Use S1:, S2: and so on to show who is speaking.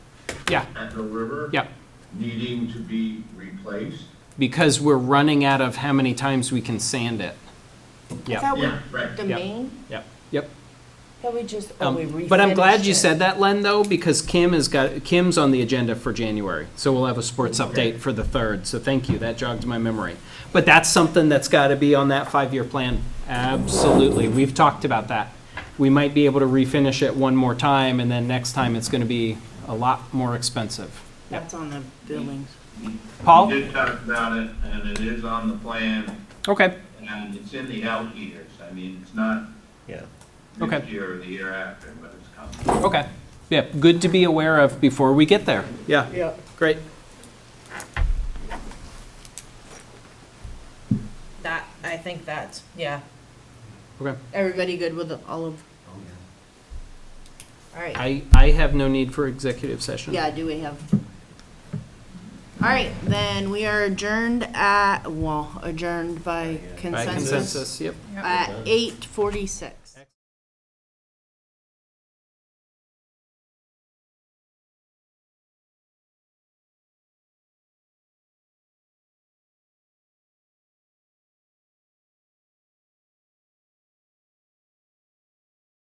S1: Yeah.
S2: at the river.
S1: Yep.
S2: Needing to be replaced.
S1: Because we're running out of how many times we can sand it.
S3: Is
S1: Yep,
S3: that
S2: Yeah,
S3: what
S2: right.
S3: the
S1: Yep.
S3: main?
S1: yep, yep.
S3: That we just, oh, we
S1: Um, But I'm glad you
S3: refinished it.
S1: said that, Len, though, because Kim has got, Kim's on the agenda for January. So we'll have a sports update for the third. So thank you. That jogged my memory. But that's something that's got to be on that five-year plan. Absolutely. We've talked about that. We might be able to refinish it one more time and then next time it's going to be a lot more expensive. Yep.
S4: That's on the buildings.
S1: Paul?
S2: We did talk about it, and it is on the plan,
S1: Okay.
S2: and it's in the out years. I mean, it's not
S5: Yeah.
S1: Okay.
S2: this year or the year after, but it's coming.
S1: Okay. Yeah, good to be aware of before we get there. Yeah,
S4: Yeah.
S1: great.
S3: That, I think that's, yeah.
S1: Okay.
S4: Everybody good with all of,
S3: All right.
S1: I, I have no need for executive session.
S4: yeah, do we have? All right, then we are adjourned at, well, adjourned by
S1: By
S4: consensus
S1: consensus, yep.
S4: at eight forty-six.